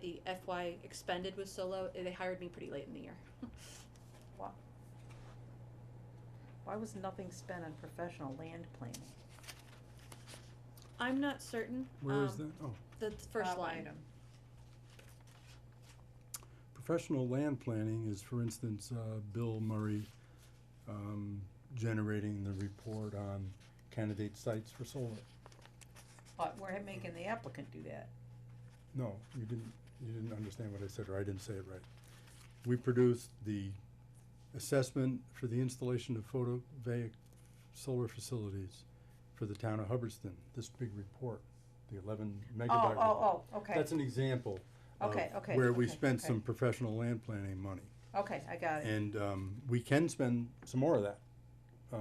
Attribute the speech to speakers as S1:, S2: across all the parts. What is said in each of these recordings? S1: the FY expended was so low, they hired me pretty late in the year.
S2: Why was nothing spent on professional land planning?
S1: I'm not certain,
S3: Where is
S1: um,
S3: that? Oh,
S1: the th- first
S2: Top
S1: line,
S2: item.
S3: professional land planning is, for instance, uh, Bill Murray, um, generating the report on candidate sites for solar.
S2: But we're making the applicant do that.
S3: No, you didn't, you didn't understand what I said, or I didn't say it right. We produced the assessment for the installation of photovoltaic solar facilities for the town of Hubbardston, this big report, the eleven megabyte.
S2: Oh,
S3: report.
S2: oh, oh, okay,
S3: That's an example of
S2: Okay, okay,
S3: where we
S2: okay,
S3: spent
S2: okay.
S3: some professional land planning money.
S2: okay, I got it.
S3: And um, we can spend some more of that uh,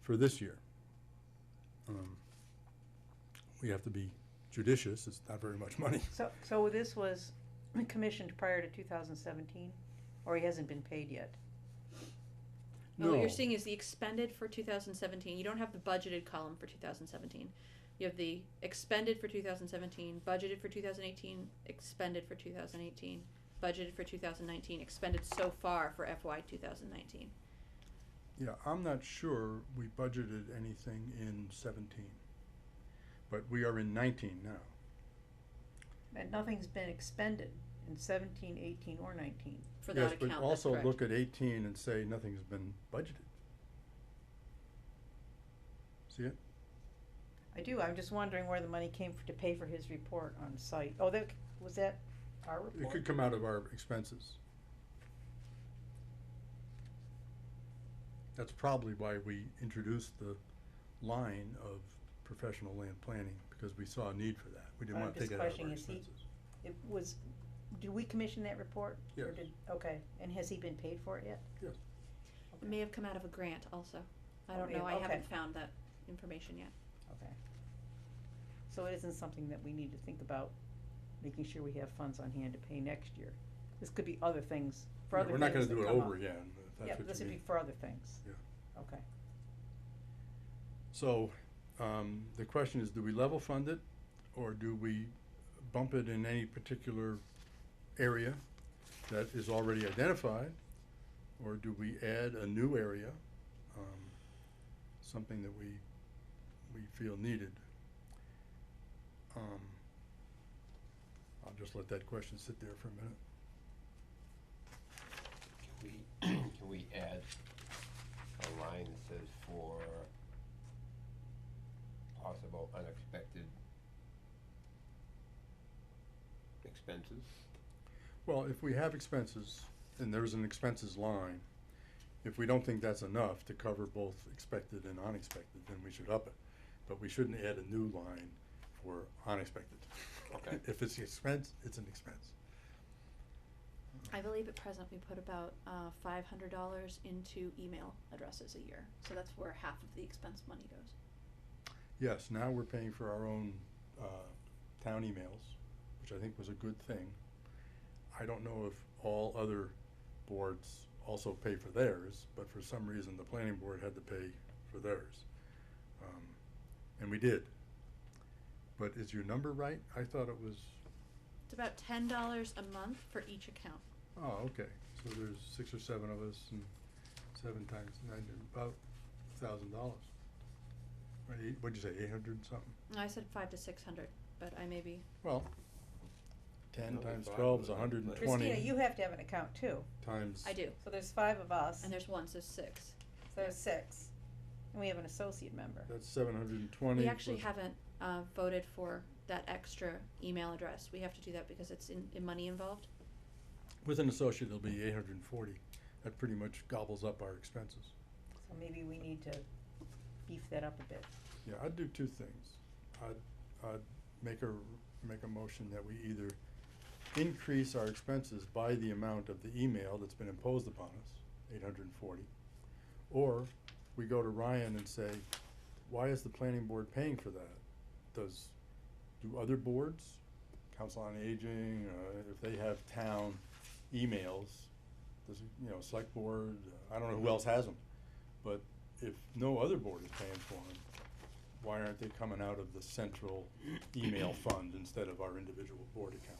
S3: for this year. Um, We have to be judicious, it's not very much money.
S2: So, so this was commissioned prior to two thousand seventeen, or he hasn't been paid yet?
S1: no, what
S3: No.
S1: you're seeing is the expended for two thousand seventeen, you don't have the budgeted column for two thousand seventeen. You have the expended for two thousand seventeen, budgeted for two thousand eighteen, expended for two thousand eighteen, budgeted for two thousand nineteen, expended so far for FY two thousand nineteen.
S3: Yeah, I'm not sure we budgeted anything in seventeen, but we are in nineteen now.
S2: And nothing's been expended in seventeen, eighteen, or nineteen.
S1: For that
S3: Yes,
S1: account, that's correct.
S3: but also look at eighteen and say nothing's been budgeted. See it?
S2: I do, I'm just wondering where the money came for, to pay for his report on site. Oh, that, was that our
S3: It
S2: report?
S3: could come out of our expenses. That's probably why we introduced the line of professional land planning, because we saw a need for that. We didn't
S2: I'm
S3: wanna
S2: just
S3: take it out of our
S2: questioning, is he-
S3: expenses.
S2: It was, do we commission that report? Or
S3: Yes.
S2: did- Okay, and has he been paid for it yet?
S3: Yes.
S1: It may have come out of a grant also. I
S2: Oh,
S1: don't
S2: may
S1: know, I
S2: have- okay.
S1: haven't found that information yet.
S2: Okay. So it isn't something that we need to think about, making sure we have funds on hand to pay next year. This could be other things, for
S3: Yeah,
S2: other
S3: We're
S2: things
S3: not gonna
S2: that
S3: do it
S2: come up.
S3: over again, if
S2: Yeah, but
S3: that's what
S2: this
S3: you
S2: would
S3: mean.
S2: be for other things.
S3: Yeah.
S2: Okay,
S3: So, um, the question is, do we level fund it, or do we bump it in any particular area that is already identified? Or do we add a new area, um, something that we, we feel needed? Um, I'll just let that question sit there for a minute.
S4: Can we, can we add a line that says for possible unexpected expenses?
S3: Well, if we have expenses, and there's an expenses line, if we don't think that's enough to cover both expected and unexpected, then we should up it. But we shouldn't add a new line for unexpected.
S4: Okay.
S3: If it's expense, it's an expense.
S1: I believe at present we put about uh, five hundred dollars into email addresses a year, so that's where half of the expense money goes.
S3: Yes, now we're paying for our own, uh, town emails, which I think was a good thing. I don't know if all other boards also pay for theirs, but for some reason, the planning board had to pay for theirs. Um, And we did. But is your number right? I thought it was,
S1: It's about ten dollars a month for each account.
S3: oh, okay, so there's six or seven of us and seven times nine, about a thousand dollars. Right, eight, what'd you say, eight hundred and something?
S1: And I said five to six hundred, but I may be.
S3: Well, ten
S4: Another
S3: times
S4: five
S3: twelve is
S4: would
S3: a
S4: have
S3: hundred and
S4: been-
S2: Christina,
S3: twenty
S2: you have to have an account too,
S3: times.
S1: I do,
S2: so there's five of us,
S1: and there's one, so six.
S2: so there's six, and we have an associate member.
S3: That's seven hundred and twenty.
S1: We actually haven't uh, voted for that extra email address. We have to do that because it's in, in money involved.
S3: With an associate, it'll be eight hundred and forty. That pretty much gobbles up our expenses.
S2: So maybe we need to beef that up a bit.
S3: Yeah, I'd do two things. I'd, I'd make a, make a motion that we either increase our expenses by the amount of the email that's been imposed upon us, eight hundred and forty. Or we go to Ryan and say, why is the planning board paying for that? Does, do other boards, council on aging, uh, if they have town emails, does, it- you know, select board, I don't know who else has them. But if no other board is paying for them, why aren't they coming out of the central email fund instead of our individual board account?